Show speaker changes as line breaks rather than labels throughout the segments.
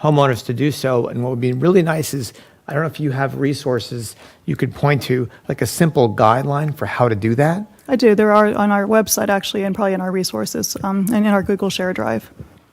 homeowners to do so. And what would be really nice is, I don't know if you have resources you could point to, like a simple guideline for how to do that.
I do. There are on our website actually, and probably in our resources, um, and in our Google Share Drive.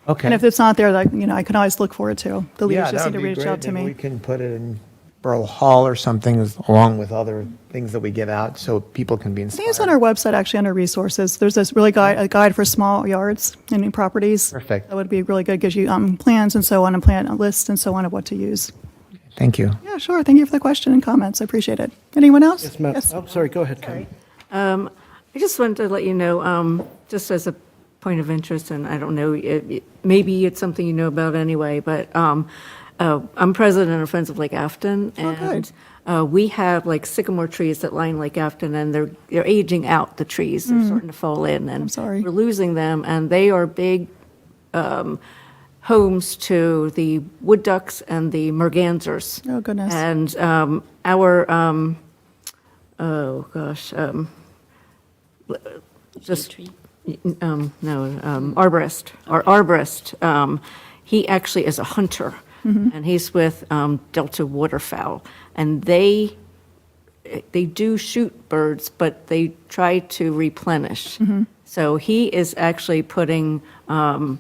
Okay.
And if it's not there, like you know, I can always look for it too. The leaders
Yeah, that
just
would
need to
be
reach
great.
out to
Maybe
me.
We can put it in Borough Hall or something as- along with other things that we give out so people can be
I think it's on
inspired.
our website actually under resources. There's this really guide, a guide for small yards and new properties.
Perfect.
That would be really good. Gives you um, plans and so on, and plan lists and so on of what to use.
Thank you.
Yeah, sure. Thank you for the question and comments. I appreciate it. Anyone else?
Yes, ma'am. Oh, sorry, go ahead, Karen.
I just wanted to let you know, um, just as a point of interest, and I don't know, it- it- maybe it's something you know about anyway, but um, uh, I'm president of Friends of Lake Afton.
Oh,
And uh, we have like sycamore trees that line Lake Afton, and they're, they're aging out, the trees. They're starting to fall in.
Mm. I'm sorry.
And we're losing them, and they are big um, homes to the wood ducks and the mergansers.
Oh, goodness.
And um, our, um, oh, gosh, um, just, um, no, um, arborist, our arborist, um, he actually is a hunter, and he's with um, Delta Waterfowl, and they, they do shoot birds, but they try to replenish. So he is actually putting um,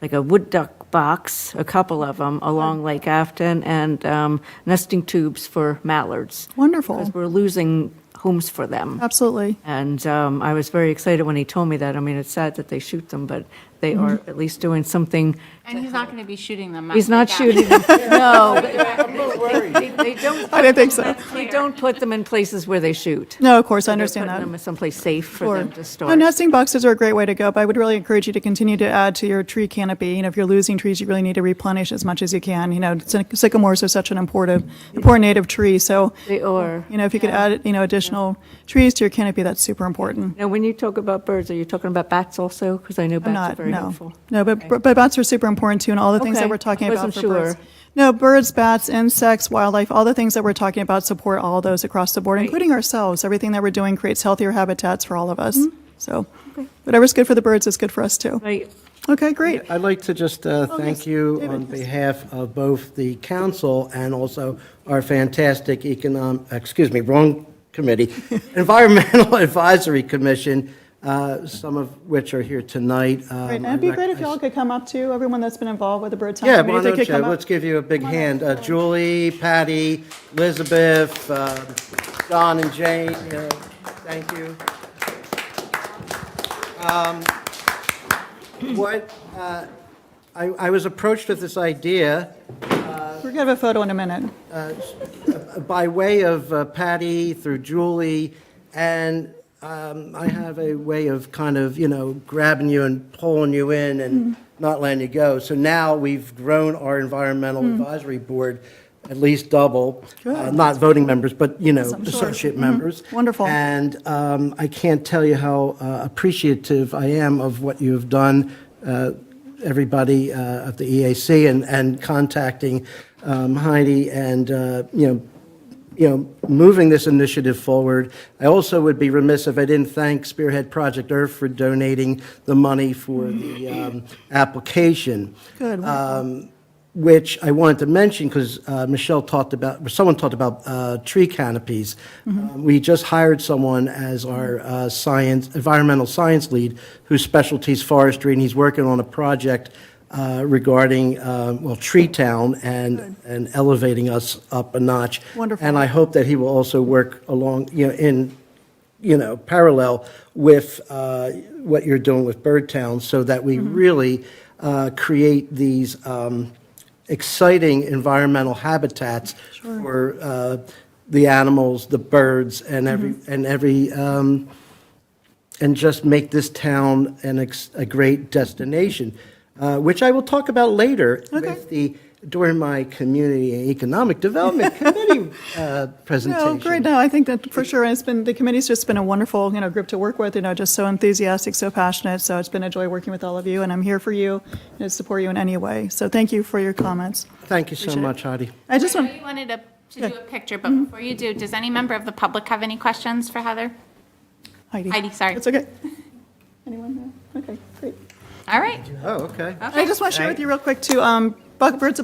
like a wood duck box, a couple of them, along Lake Afton, and um, nesting tubes for mallards.
Wonderful.
Because we're losing homes for them.
Absolutely.
And um, I was very excited when he told me that. I mean, it's sad that they shoot them, but they are at least doing something.
And he's not going to be shooting them.
He's not shooting them. No. they- they- They don't.
I didn't think so.
They don't put them in places where they shoot.
No, of course, I
They're
understand that.
putting them someplace safe for
Sure.
them to
No,
store.
nesting boxes are a great way to go, but I would really encourage you to continue to add to your tree canopy. You know, if you're losing trees, you really need to replenish as much as you can. You know, sy- sycamores are such an important, important native tree, so,
They are.
you know, if you could add, you know, additional trees to your canopy, that's super important.
Now, when you talk about birds, are you talking about bats also? Because I know
I'm
bats are
not,
very
no.
helpful.
No, but, but bats are super important too, and all the things that
Okay,
we're talking
I
about
wasn't
for birds.
sure.
No, birds, bats, insects, wildlife, all the things that we're talking about support all those across the board, including ourselves. Everything that we're doing creates healthier habitats for all of us.
Mm-hmm.
So whatever's good for the birds is good for us too.
Right.
Okay, great.
I'd like to just uh, thank
Oh, yes,
you
David,
on
yes.
behalf of both the council and also our fantastic economic, excuse me, wrong committee, Environmental Advisory Commission, uh, some of which are here tonight.
Right,
Um,
and it'd be
I
great if
rec-
y'all could come up too, everyone that's been involved with the Bird Time
Yeah,
Committee.
why
if they
don't
could
you,
come up.
let's give you a big hand. Uh, Julie, Patty, Elizabeth, um, John and Jane, uh, thank you. Um, What, uh, I I was approached with this idea
We're gonna have a photo in a minute.
by way of uh, Patty through Julie, and um, I have a way of kind of, you know, grabbing you and pulling you in and not letting you go. So now we've grown our environmental advisory board at least double, Uh, not voting members, but, you know,
I'm sure.
associate members.
Wonderful.
And um, I can't tell you how uh, appreciative I am of what you have done, uh, everybody uh, at the EAC, and, and contacting um, Heidi and, uh, you know, you know, moving this initiative forward. I also would be remiss if I didn't thank Spearhead Project Earth for donating the money for the um, application
Good, wonderful.
Um, which I wanted to mention because Michelle talked about, someone talked about uh, tree canopies. Um, We just hired someone as our uh, science, environmental science lead, whose specialty is forestry, and he's working on a project uh, regarding, uh, well, Tree Town and, and elevating us up a notch.
Wonderful.
And I hope that he will also work along, you know, in, you know, parallel with uh, what you're doing with Bird Town, so that we really uh, create these um, exciting environmental habitats for uh, the animals, the birds, and every, and every, um, and just make this town an ex- a great destination, uh, which I will talk about later with the, during my Community and Economic Development Committee uh,
No,
presentation.
great, no, I think that for sure, and it's been, the committee's just been a wonderful, you know, group to work with, you know, just so enthusiastic, so passionate, so it's been a joy working with all of you, and I'm here for you, and to support you in any way, so thank you for your comments.
Thank you so much, Heidi.
I just
I
want,
know you wanted to, to do a picture, but before you do, does any member of the public have any questions for Heather?
Heidi.
Heidi, sorry.
It's okay. Anyone? No? Okay, great.
All right.
Oh, okay.
I just want to share with you real quick, too, um, Buck- Birds of